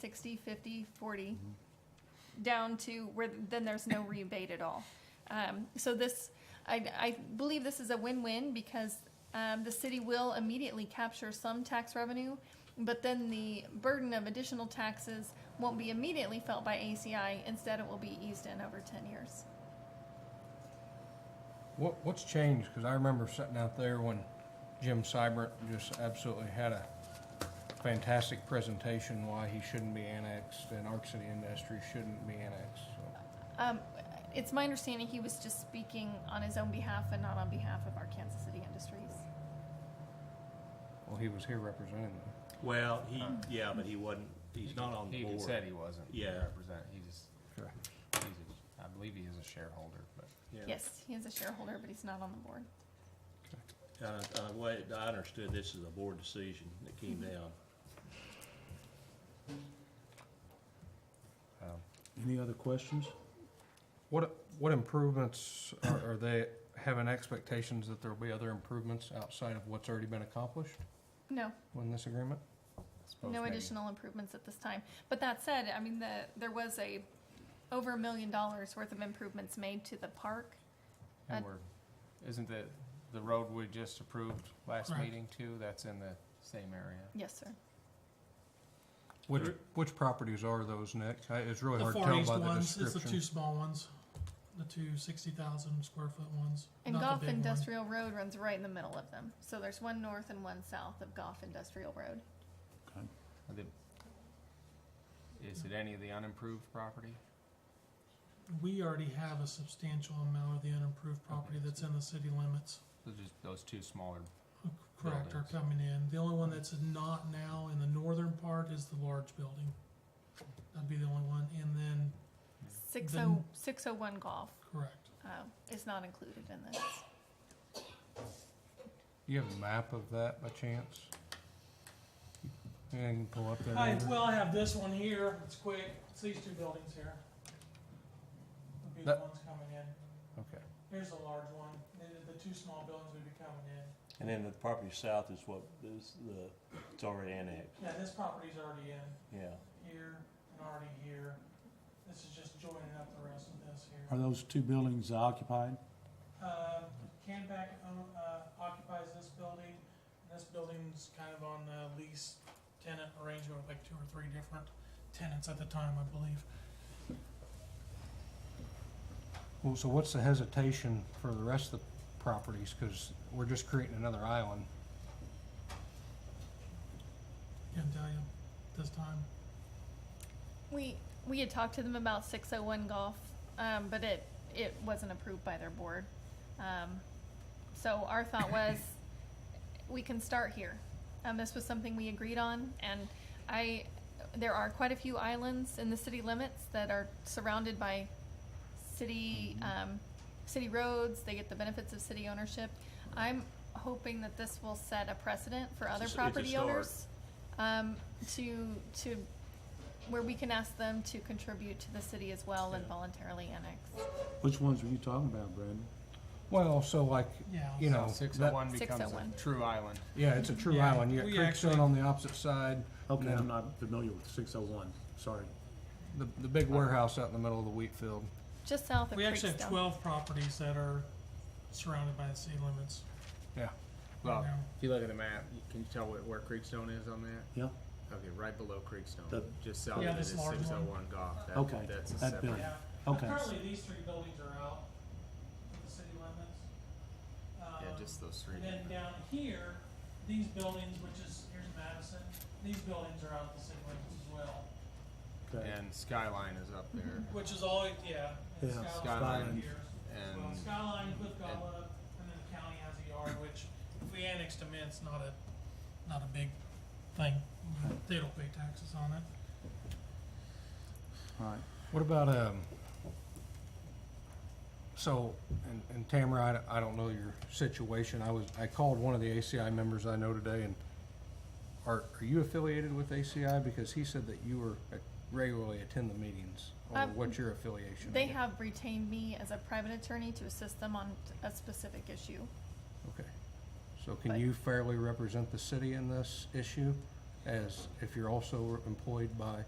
60, 50, 40, down to where then there's no rebate at all. Um, so this, I, I believe this is a win-win because um, the city will immediately capture some tax revenue, but then the burden of additional taxes won't be immediately felt by ACI. Instead, it will be eased in over 10 years. What, what's changed? Because I remember sitting out there when Jim Seibert just absolutely had a fantastic presentation why he shouldn't be annexed and Arc City Industries shouldn't be annexed. So, Um, it's my understanding he was just speaking on his own behalf and not on behalf of our Kansas City Industries. well, he was here representing them. Well, he, yeah, but he wasn't, he's not on the He board. even said he wasn't. Yeah. Represent, he just, he's a, I believe he is a shareholder, but. Yeah. Yes, he is a shareholder, but he's not on the board. Uh, uh, wait, I understood this is a board decision that came down. um, Any other questions? What, what improvements are, are they having expectations that there'll be other improvements outside of what's already been accomplished No, in this agreement? I suppose no maybe- additional improvements at this time. But that said, I mean, the, there was a over a million dollars worth of improvements made to the park. And uh, we're, isn't the, the road we just approved last Correct. meeting too, that's in the same area? Yes, sir. Which, which properties are those, Nick? I- It's really The hard to Far tell East by the ones, it's the two description. small ones, the two sixty thousand square foot ones. And not the Goff big one. Industrial Road runs right in the middle of them. So there's one north and one south of Goff Industrial Road. Are the- Is it any of the unimproved property? We already have a substantial amount of the unimproved property that's in the city limits. So just those two smaller, Oh, Correct, are Buildings. coming in. The only one that's not now in the northern part is the large building. That'd be the only one, and then, 60, Then- 601 Goff correct. uh, is not included in this. Do you have a map of that by chance? And you can pull up there. I, later? well, I have this one here, it's quick, it's these two buildings here. Would be the That- ones coming in. Okay. Here's the large one, and the two small buildings would be coming in. And then the property south is what, is the, it's already annexed, Yeah, this property's already in, yeah. here, and already here. This is just joining up the rest of this here. Are those two buildings occupied? Uh, Canback own- uh, occupies this building, and this building's kind of on a lease tenant arrangement with like two or three different tenants at the time, I believe. Well, so what's the hesitation for the rest of the properties? Because we're just creating another island. Can't tell you uh, this time. We we had talked to them about 601 golf, um, but it it wasn't approved by their board. Um, so our thought was we can start here. Um, this was something we agreed on, and I there are quite a few islands in the city limits that are surrounded by city um, city roads. They get the benefits of city ownership. I'm hoping that this will set a precedent for other s- it's a property start. owners um, to to where we can ask them to contribute to the city as well and Yeah. voluntarily annex. Which ones were you talking about, Brandon? Well, so like, Yeah. you know, six oh that- one becomes a 601. true island. yeah, it's a true Yeah, island. You we got Creekstone actually- on the opposite side, Okay, No. I'm not familiar with six oh one, sorry. the, the big Uh, warehouse out in the middle of the wheat field. Just south of We actually have Creekstone. twelve properties that are surrounded by the city limits. Yeah. Well, Yeah. if you look at the map, you- can you tell where, where Creekstone is on that? Yeah, Okay, right below Creekstone, The- just south of Yeah, it is this large one. six oh one Goff. That- Okay, That's a that separate. building. Yeah, Okay. currently these three buildings are out of the city limits. Yeah, Um, just those three. And then down here, these buildings, which is, here's Madison, these buildings are out of the city limits as well, okay. And Skyline is up there. which is always, yeah. Yeah, and Skyline Skyline's here as well. and- Skyline, Cliff Gala, and then the county has a yard, which if we annex them in, it's not a, not a big thing. They don't pay taxes on it. All right. What about, um, so, and, and Tamara, I, don't- I don't know your situation. I was, I called one of the ACI members I know today and are, are you affiliated with ACI? Because he said that you were, uh, regularly attend the meetings or Um, what's your affiliation? They with it? have retained me as a private attorney to assist them on a specific issue. Okay. So can But- you fairly represent the city in this issue as if you're also employed by